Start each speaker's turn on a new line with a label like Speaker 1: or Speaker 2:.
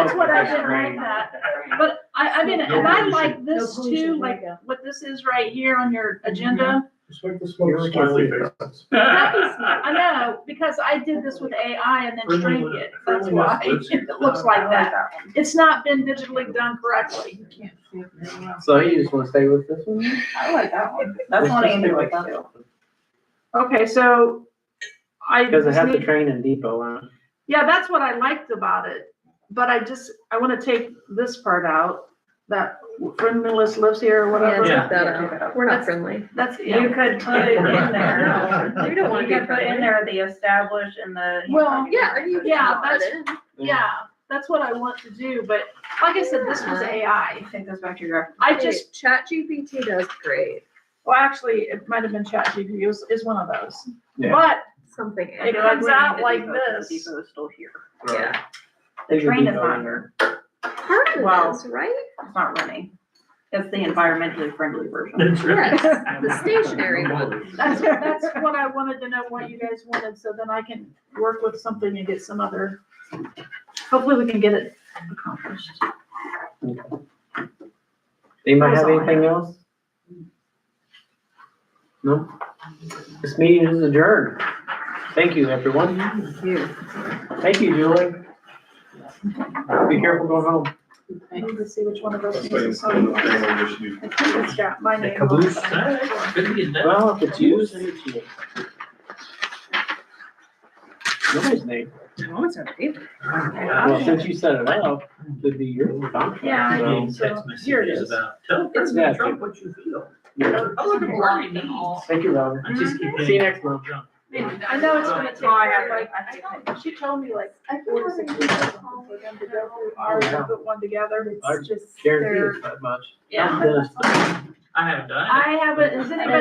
Speaker 1: I
Speaker 2: didn't like that. But I, I mean, and I like this too, like what this is right here on your agenda.
Speaker 3: Just like the smoke.
Speaker 4: Smiley
Speaker 3: faces.
Speaker 2: That was- I know, because I did this with AI and then
Speaker 4: Friendly
Speaker 2: shrank
Speaker 4: with-
Speaker 2: it. That's
Speaker 4: friendly with
Speaker 2: why it
Speaker 4: lizards.
Speaker 2: looks like that. It's not been digitally done correctly.
Speaker 5: So you just wanna stay with this one?
Speaker 1: I like that one. That's one Andrew would do.
Speaker 2: Okay, so I
Speaker 5: Cause I
Speaker 2: just
Speaker 5: have the
Speaker 2: need,
Speaker 5: train in depot on.
Speaker 2: yeah, that's what I liked about it. But I just, I want to take this part out, that friendly list lives here or whatever.
Speaker 4: Yeah.
Speaker 6: We're not friendly.
Speaker 2: That's,
Speaker 1: You
Speaker 2: yeah.
Speaker 1: could put it in there.
Speaker 6: We
Speaker 1: You
Speaker 6: don't want to
Speaker 1: could
Speaker 6: be
Speaker 1: put in
Speaker 6: friendly.
Speaker 1: there the established and the.
Speaker 2: Well,
Speaker 6: Yeah, and you.
Speaker 2: Yeah,
Speaker 6: can put
Speaker 2: that's-
Speaker 6: it in.
Speaker 2: Yeah, that's what I want to do, but like I said, this
Speaker 1: Uh-huh.
Speaker 2: was AI.
Speaker 1: I think goes back to your.
Speaker 2: I
Speaker 6: Hey,
Speaker 2: just,
Speaker 6: ChatGPT does great,
Speaker 2: well, actually, it might have been ChatGPT is, is one of those.
Speaker 5: Yeah.
Speaker 2: But
Speaker 6: something.
Speaker 2: It comes out like this.
Speaker 1: Depot is still here.
Speaker 6: Yeah.
Speaker 1: The
Speaker 5: There's a
Speaker 1: train is
Speaker 5: depot
Speaker 1: not
Speaker 5: in
Speaker 1: here. Well-
Speaker 6: Part is, right?
Speaker 1: It's not running. It's the environmentally friendly version.
Speaker 4: It's really-
Speaker 6: Yes, the stationary one.
Speaker 2: that's, that's what I wanted to know, what you guys wanted, so then I can work with something and get some other, hopefully we can get it accomplished.
Speaker 5: Anybody
Speaker 2: That's
Speaker 5: have
Speaker 2: all I
Speaker 5: anything else? No? This meeting is adjourned. Thank you, everyone. Thank you, Julie. Be careful going home.
Speaker 2: I need to see which one of those.
Speaker 3: That's
Speaker 2: things
Speaker 3: why it's
Speaker 2: is
Speaker 3: kind of a
Speaker 2: on.
Speaker 3: family issue.
Speaker 2: I think it's got my name. on
Speaker 4: Caboose.
Speaker 2: it.
Speaker 4: Couldn't get that.
Speaker 5: Well, if it's you, send it to you. Nobody's name.
Speaker 4: Oh,
Speaker 5: Well, since you set it up, it'd be your contract.
Speaker 2: Yeah, I
Speaker 5: so-
Speaker 4: Getting
Speaker 2: so
Speaker 4: text
Speaker 2: here it
Speaker 4: messages
Speaker 2: is.
Speaker 4: about, tell
Speaker 5: Yeah.
Speaker 4: President Trump what you feel.
Speaker 5: Yeah.
Speaker 4: I look at what he needs.
Speaker 5: Thank you, Robin.
Speaker 4: I just keep
Speaker 5: See you
Speaker 4: getting
Speaker 5: next month.
Speaker 4: drunk.
Speaker 2: I know it's gonna take,
Speaker 1: Oh, I have,
Speaker 2: her, like,
Speaker 1: I think I-
Speaker 2: she told me like four to six weeks for them to go through ours and put one together,
Speaker 5: I
Speaker 2: it's just,
Speaker 5: Guarantee
Speaker 2: they're,
Speaker 5: it's that much.
Speaker 2: yeah.
Speaker 5: I'm just-
Speaker 4: I haven't done it.
Speaker 2: I haven't, has anybody